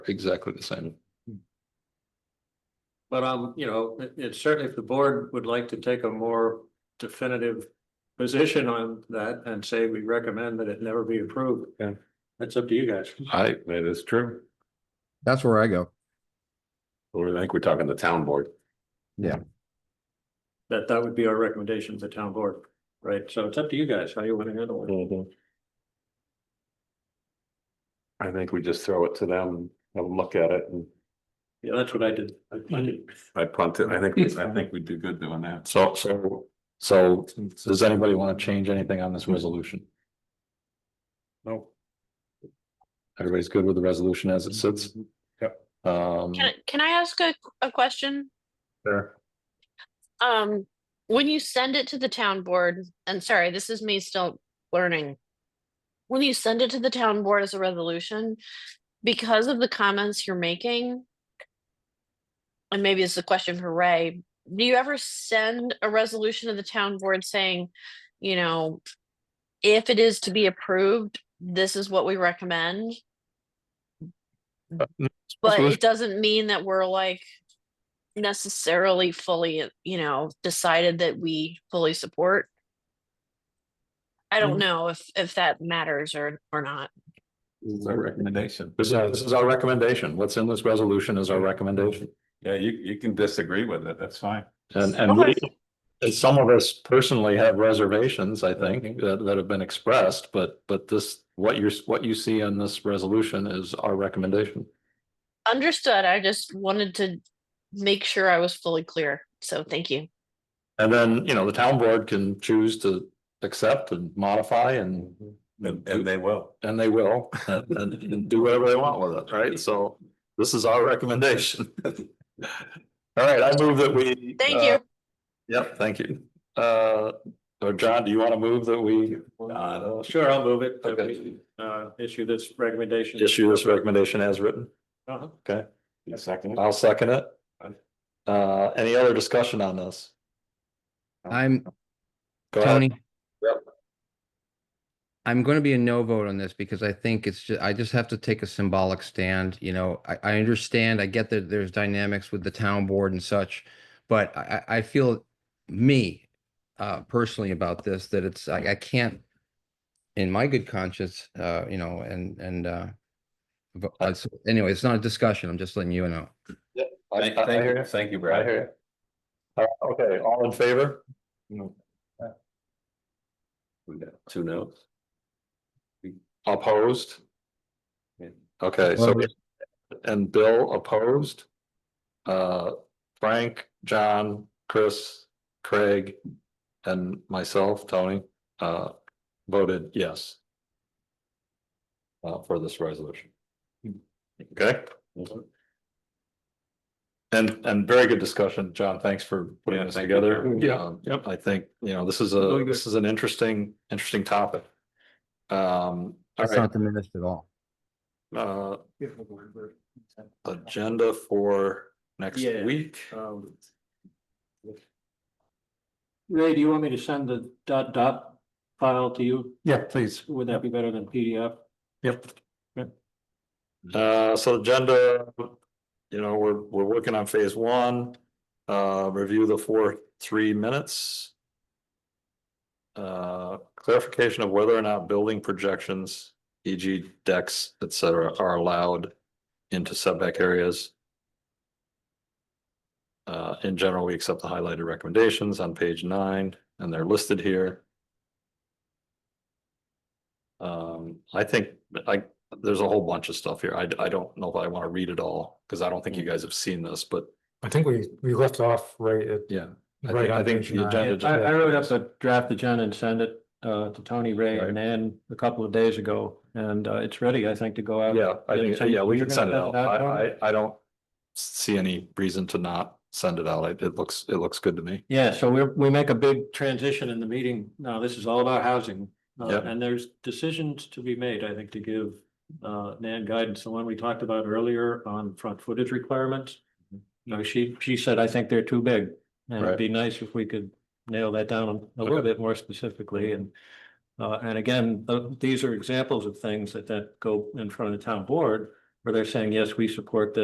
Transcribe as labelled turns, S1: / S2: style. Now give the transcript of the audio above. S1: exactly the same.
S2: But um, you know, it it's certainly if the board would like to take a more definitive position on that and say we recommend that it never be approved.
S3: Yeah.
S2: That's up to you guys.
S3: I, that is true.
S4: That's where I go.
S3: Or I think we're talking the town board.
S2: That that would be our recommendation to the town board, right? So it's up to you guys how you want to handle it.
S1: Mm-hmm.
S3: I think we just throw it to them, and have them look at it and
S2: Yeah, that's what I did. I- I did.
S3: I punt it. I think, I think we do good doing that.
S1: So, so, so does anybody want to change anything on this resolution?
S3: No.
S1: Everybody's good with the resolution as it sits?
S3: Yep.
S1: Um,
S5: Can, I- can I ask a, a question?
S1: Sure.
S5: Um, when you send it to the town board, and sorry, this is me still learning. When you send it to the town board as a resolution, because of the comments you're making, and maybe it's a question for Ray, do you ever send a resolution to the town board saying, you know, if it is to be approved, this is what we recommend? But
S1: resolution-
S5: it doesn't mean that we're like, necessarily fully, you know, decided that we fully support. I don't know if, if that matters or, or not.
S3: This is our recommendation.
S1: This is, our- this is our recommendation. What's in this resolution is our recommendation.
S3: Yeah, you, you can disagree with it. That's fine.
S1: And, and we, and some of us personally have reservations, I think, that, that have been expressed, but, but this, what you're, what you see in this resolution is our recommendation.
S5: Understood. I just wanted to make sure I was fully clear. So thank you.
S1: And then, you know, the town board can choose to accept and modify and,
S3: And, and they will.
S1: and they will. And, and do whatever they want with it, right? So this is our recommendation. All right, I move that we.
S5: Thank
S1: uh,
S5: you.
S1: Yep, thank you. Uh, or John, do you want to move that we?
S2: Uh, Sure, I'll move it. that we,
S1: Okay.
S2: Uh, issue this recommendation.
S1: Issue this recommendation as written.
S2: Uh-huh.
S1: Okay,
S3: Second.
S1: I'll second it. Uh, any other discussion on this?
S4: I'm
S1: Go ahead.
S4: Tony.
S1: Yep.
S4: I'm going to be a no vote on this because I think it's just, I just have to take a symbolic stand, you know, I, I understand, I get that there's dynamics with the town board and such. But I, I, I feel me, uh, personally about this, that it's, I, I can't. In my good conscience, uh, you know, and, and, uh. But, uh, so anyway, it's not a discussion. I'm just letting you know.
S1: I- I- I hear you.
S3: thank you,
S1: I hear you. All right, Okay, all in favor?
S3: No. We got two notes.
S1: Opposed?
S3: Yeah.
S1: Okay, so,
S4: Opposed.
S1: and Bill opposed? Uh, Frank, John, Chris, Craig, and myself, Tony, uh, voted yes. Uh, for this resolution. Okay? And, and very good discussion, John, thanks for putting
S3: Yeah,
S1: this
S3: thank you.
S1: together.
S3: Yeah.
S1: Um, I think, you know, this is a,
S2: Really good.
S1: this is an interesting, interesting topic. Um, all
S4: That's
S1: right,
S4: not diminished at all.
S1: uh, agenda for next
S2: Yeah.
S1: week.
S2: Um, Ray, do you want me to send the dot dot file to you?
S1: Yeah, please.
S2: Would that be better than PDF?
S1: Yep.
S2: Yep.
S1: Uh, so agenda, you know, we're, we're working on phase one, uh, review the four, three minutes. Uh, clarification of whether or not building projections, e.g. decks, et cetera, are allowed into setback areas. Uh, in general, we accept the highlighted recommendations on page nine, and they're listed here. Um, I think, I, there's a whole bunch of stuff here. I, I don't know if I want to read it all, because I don't think you guys have seen this, but
S6: I think we, we left off right at.
S1: yeah. I
S6: right
S1: think, I
S6: on
S1: think
S6: page
S1: the
S6: nine.
S1: agenda.
S2: I, I wrote up a draft agenda and sent it uh to Tony Ray and Ann a couple of days ago, and uh it's ready, I think, to go out.
S1: Yeah, I
S2: Did Um, you
S1: think,
S2: send-
S1: yeah, we
S2: you're
S1: can
S2: gonna
S1: send it out.
S2: send it out, Tony?
S1: I, I, I don't see any reason to not send it out. It, it looks, it looks good to me.
S2: Yeah, so we we make a big transition in the meeting. Now, this is all about housing. Uh,
S1: Yep.
S2: and there's decisions to be made, I think, to give uh Nan guidance, the one we talked about earlier on front footage requirements. You know, she she said, I think they're too big, and
S1: Mm-hmm. Right.
S2: it'd be nice if we could nail that down a little
S1: Okay.
S2: bit more specifically and. Uh, and again, th- these are examples of things that that go in front of the town board where they're saying, yes, we support this.